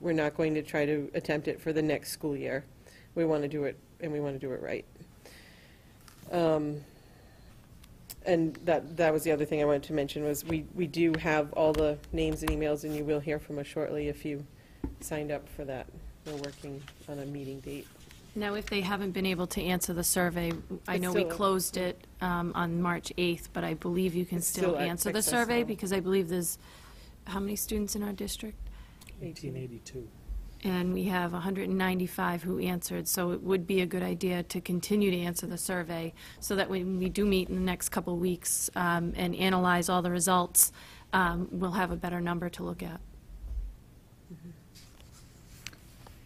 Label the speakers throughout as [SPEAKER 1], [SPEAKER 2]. [SPEAKER 1] We're not going to try to attempt it for the next school year. We want to do it, and we want to do it right. Um, And that, that was the other thing I wanted to mention, was we, we do have all the names and emails, and you will hear from us shortly if you signed up for that. We're working on a meeting date.
[SPEAKER 2] Now, if they haven't been able to answer the survey, I
[SPEAKER 1] It's
[SPEAKER 2] know we
[SPEAKER 1] still-
[SPEAKER 2] closed it um, on March 8th, but I believe you can
[SPEAKER 1] It's still
[SPEAKER 2] still
[SPEAKER 1] ac-
[SPEAKER 2] answer the survey,
[SPEAKER 1] accessible.
[SPEAKER 2] because I believe there's, how many students in our district?
[SPEAKER 3] 1882.
[SPEAKER 2] And we have 195 who answered, so it would be a good idea to continue to answer the survey, so that when we do meet in the next couple of weeks um, and analyze all the results, um, we'll have a better number to look at.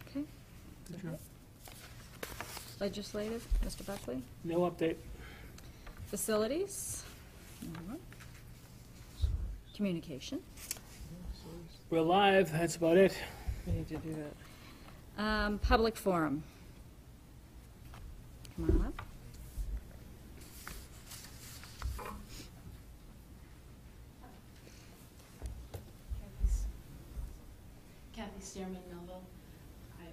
[SPEAKER 4] Okay. Legislative, Mr. Buckley.
[SPEAKER 3] No update.
[SPEAKER 4] Facilities. Alright. Communication.
[SPEAKER 3] We're live, that's about it.
[SPEAKER 1] We need to do that.
[SPEAKER 4] Um, Public forum. Come on up.
[SPEAKER 5] Kathy Stearman Melville. I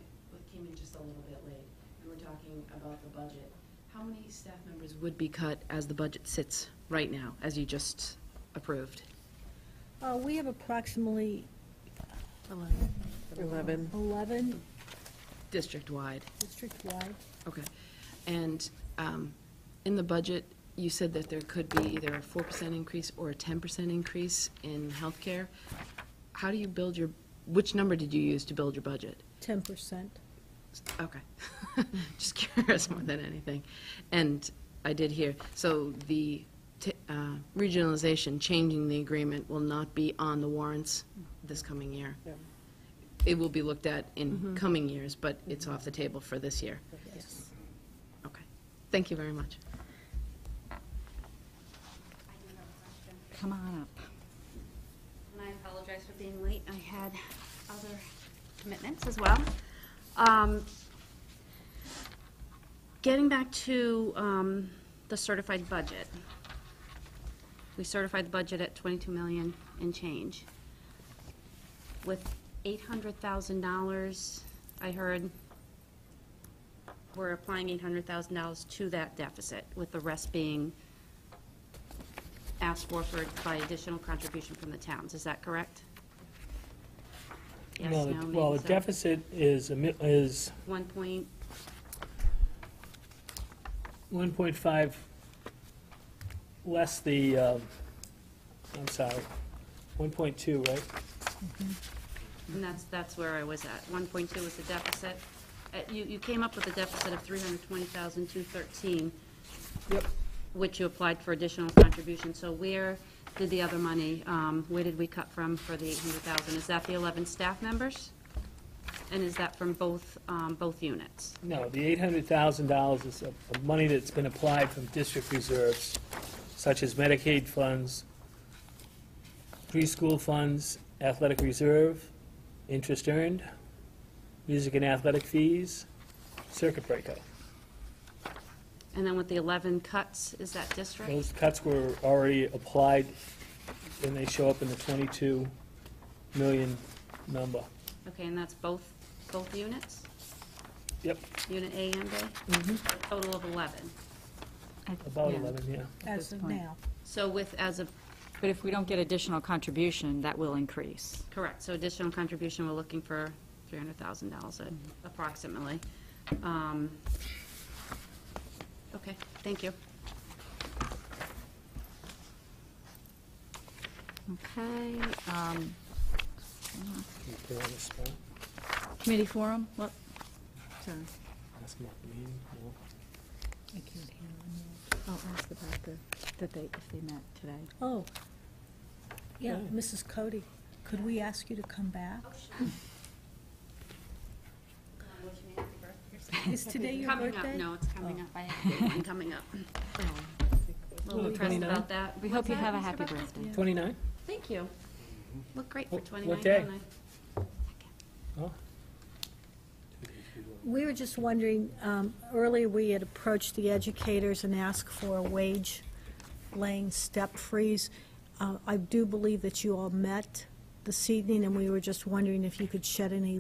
[SPEAKER 5] came in just a little bit late. We were talking about the budget. How many staff members would be cut as the budget sits right now, as you just approved?
[SPEAKER 6] Uh, We have approximately
[SPEAKER 1] 11.
[SPEAKER 6] 11
[SPEAKER 5] District-wide,
[SPEAKER 6] district-wide.
[SPEAKER 5] okay. And um, in the budget, you said that there could be either a 4% increase or a 10% increase in healthcare. How do you build your, which number did you use to build your budget?
[SPEAKER 6] 10%.
[SPEAKER 5] Okay. Just curious more than anything. And I did hear, so the t- uh, regionalization, changing the agreement will not be on the warrants this coming year.
[SPEAKER 1] No.
[SPEAKER 5] It will be looked at in coming years, but it's off the table for this year.
[SPEAKER 6] Yes.
[SPEAKER 5] Okay. Thank you very much.
[SPEAKER 7] I do have a question,
[SPEAKER 4] Come on up.
[SPEAKER 7] and I apologize for being late. I had other commitments as well. Um, Getting back to um, the certified budget. We certified the budget at 22 million and change. With $800,000, I heard we're applying $800,000 to that deficit, with the rest being asked for for, by additional contribution from the towns, is that correct? Yes,
[SPEAKER 3] Well, the-
[SPEAKER 7] no, maybe
[SPEAKER 3] Well, the
[SPEAKER 7] so.
[SPEAKER 3] deficit is, a mi- is
[SPEAKER 7] One point,
[SPEAKER 3] 1.5 less the, um, I'm sorry, 1.2, right?
[SPEAKER 7] and that's, that's where I was at, one point two was the deficit. Uh, you, you came up with a deficit of three hundred twenty thousand, two thirteen.
[SPEAKER 3] Yep.
[SPEAKER 7] Which you applied for additional contribution, so where did the other money, um, where did we cut from for the eight hundred thousand? Is that the eleven staff members? And is that from both, um, both units?
[SPEAKER 3] No, the $800,000 is of- of money that's been applied from district reserves, such as Medicaid funds, preschool funds, athletic reserve, interest earned, music and athletic fees, circuit breaker.
[SPEAKER 7] And then with the eleven cuts, is that district?
[SPEAKER 3] Those cuts were already applied, and they show up in the 22 million number.
[SPEAKER 7] Okay, and that's both, both units,
[SPEAKER 3] Yep,
[SPEAKER 7] unit A and B? Mm-hmm. Total of eleven.
[SPEAKER 3] about
[SPEAKER 4] Yeah.
[SPEAKER 3] 11, yeah.
[SPEAKER 4] this
[SPEAKER 6] As of
[SPEAKER 4] point.
[SPEAKER 6] now.
[SPEAKER 7] So with, as a,
[SPEAKER 4] But if we don't get additional contribution, that will increase.
[SPEAKER 7] correct, so additional contribution, we're looking for three hundred thousand dollars
[SPEAKER 4] Mm-hmm.
[SPEAKER 7] approximately. Um, Okay, thank you.
[SPEAKER 4] Okay. um,
[SPEAKER 3] Can you put it on the spot?
[SPEAKER 4] Committee forum, what? Sorry.
[SPEAKER 3] Ask them at the meeting, no?
[SPEAKER 4] I can't hear them. I'll ask about the, that they, if they met today.
[SPEAKER 6] Oh, yeah,
[SPEAKER 3] Yeah.
[SPEAKER 6] Mrs. Cody, could we ask you to come back? Is today your
[SPEAKER 7] Coming up,
[SPEAKER 6] birthday?
[SPEAKER 7] no, it's coming
[SPEAKER 4] Oh.
[SPEAKER 7] up, I have a big one coming up. A little depressed about that.
[SPEAKER 4] We hope you
[SPEAKER 7] What's
[SPEAKER 4] have a
[SPEAKER 7] that, Mr.
[SPEAKER 4] happy
[SPEAKER 7] Buckley?
[SPEAKER 4] birthday.
[SPEAKER 3] 29?
[SPEAKER 7] Thank you. Look great for
[SPEAKER 3] What- what
[SPEAKER 7] twenty-nine,
[SPEAKER 3] day?
[SPEAKER 7] don't I?
[SPEAKER 3] Oh.
[SPEAKER 6] We were just wondering, um, earlier we had approached the educators and asked for a wage laying step freeze. Uh, I do believe that you all met this evening, and we were just wondering if you could shed any